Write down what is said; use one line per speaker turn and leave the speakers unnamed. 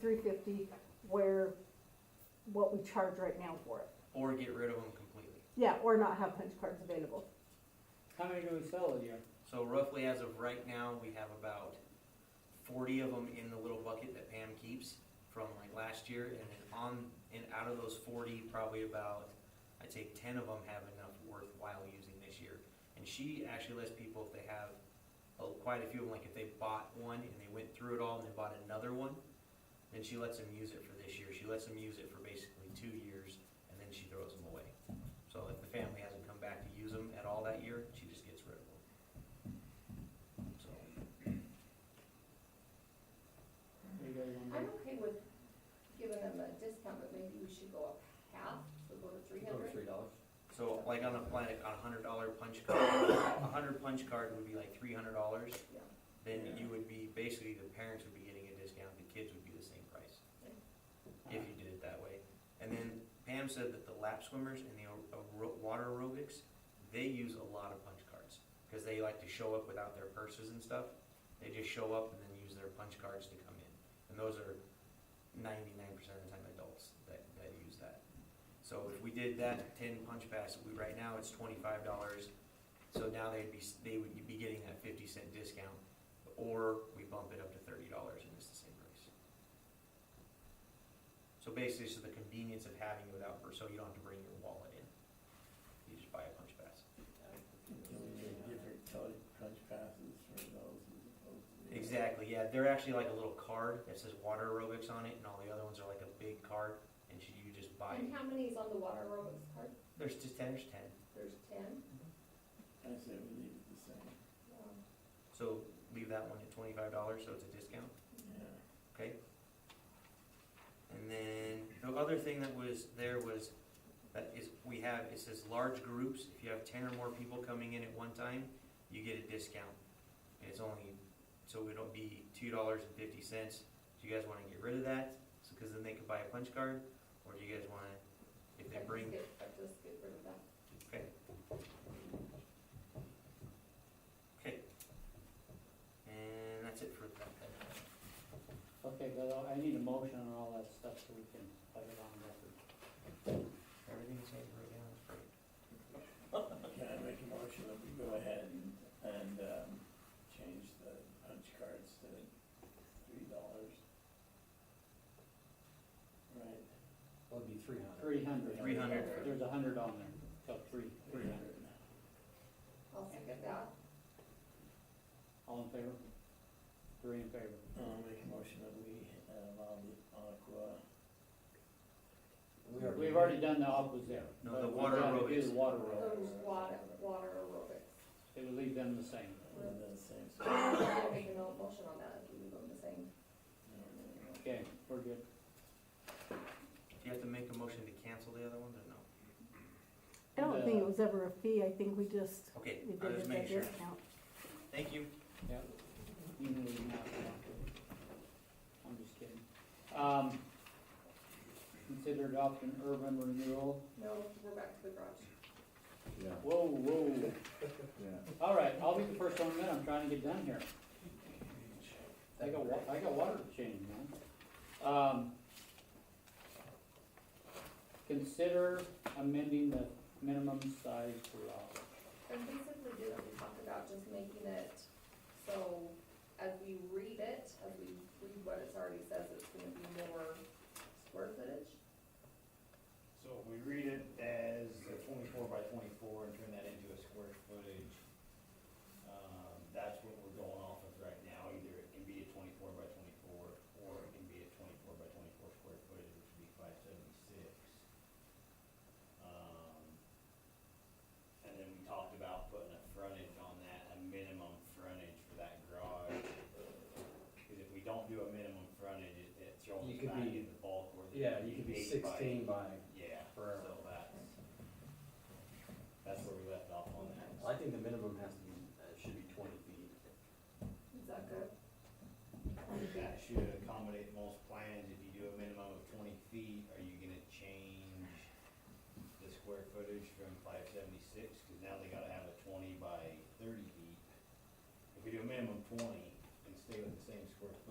three fifty, where, what we charge right now for it.
or get rid of them completely.
Yeah, or not have punch cards available.
How many do we sell a year?
So roughly as of right now, we have about forty of them in the little bucket that Pam keeps from like last year, and then on, and out of those forty, probably about, I'd say ten of them have enough worthwhile using this year. And she actually lets people, if they have uh, quite a few of them, like if they bought one and they went through it all and they bought another one, then she lets them use it for this year, she lets them use it for basically two years, and then she throws them away. So if the family hasn't come back to use them at all that year, she just gets rid of them. So,
You got one
I'm
there?
okay with giving them a discount, but maybe we should go up half, so go to three
Go to
hundred.
three dollars.
so like on a planet, on a hundred dollar punch card, a hundred punch card would be like three hundred dollars.
Yeah.
Then
Yeah.
you would be, basically the parents would be getting a discount, the kids would be the same price,
Ah.
if you did it that way. And then Pam said that the lap swimmers and the aer- water aerobics, they use a lot of punch cards. Cause they like to show up without their purses and stuff, they just show up and then use their punch cards to come in. And those are ninety-nine percent of the time adults that, that use that. So if we did that ten punch pass, we, right now it's twenty-five dollars, so now they'd be, s- they would be getting that fifty cent discount, or we bump it up to thirty dollars and it's the same price. So basically, it's just the convenience of having it without, so you don't have to bring your wallet in, you just buy a punch pass.
Do we need different colored punch passes for those as opposed to the?
Exactly, yeah, they're actually like a little card that says water aerobics on it, and all the other ones are like a big card, and should you just buy
And
it?
how many is on the water aerobics card?
There's just ten, there's ten.
There's ten?
I said we leave it the same,
Um,
So leave that one at twenty-five dollars, so it's a discount,
yeah.
okay? And then the other thing that was there was, that is, we have, it says large groups, if you have ten or more people coming in at one time, you get a discount. And it's only, so it'll be two dollars and fifty cents. Do you guys wanna get rid of that? So, cause then they could buy a punch card, or do you guys wanna, if they
I'd
bring,
just get- I'd just get rid of that.
okay? Okay. And that's it for that.
Okay, but I- I need a motion on all that stuff so we can put it on record.
Everything you said right now is great.
Can I make a motion that we go ahead and, and, um, change the punch cards to three dollars? Right,
That would be three hundred.
Three hundred.
Three hundred for,
There's a hundred on there, so three.
three hundred.
I'll second that.
All in favor? Three in favor.
I'll make a motion that we uh, allow the aqua, uh,
We already.
We've already done the opposite. there.
No,
but
the
we
water
gotta do
aerobics.
the water
Those
aerobics.
water, water aerobics.
It would leave them the same.
and then the same, so,
I'm gonna make a no- motion on that, if we leave them the same.
Okay, we're good.
do you have to make a motion to cancel the other ones or no?
I don't think it was ever a fee, I think we just,
Okay,
we
I
did it
was just
as a
making sure.
discount.
Thank you.
Yeah. You can leave them out if you want to. I'm just kidding. Um, consider adopting urban renewal.
No, we're back to the garage.
Whoa, whoa. All right, I'll be the first one in. I'm trying to get done here. I got wa, I got water to change, man. Um, consider amending the minimum size garage.
And basically did what we talked about, just making it, so as we read it, as we read what it's already says, it's gonna be more square footage.
So if we read it as a twenty-four by twenty-four and turn that into a square footage, um, that's what we're going off of right now, either it can be a twenty-four by twenty-four, or it can be a twenty-four by twenty-four square footage, which would be five seventy-six. Um, and then we talked about putting a frontage on that, a minimum frontage for that garage. Cause if we don't do a minimum frontage, it, it throws
You
us
could
back
be-
in the bulk where. it
Yeah, you could be
eight by-
sixteen by,
yeah, so
Forever.
that's, that's where we left off on that.
I think the minimum has to be, uh, should be twenty feet.
Is that good?
That should accommodate most plans, if you do a minimum of twenty feet, are you gonna change the square footage from five seventy-six, cause now they gotta have a twenty by thirty feet. If we do a minimum twenty and stay with the same square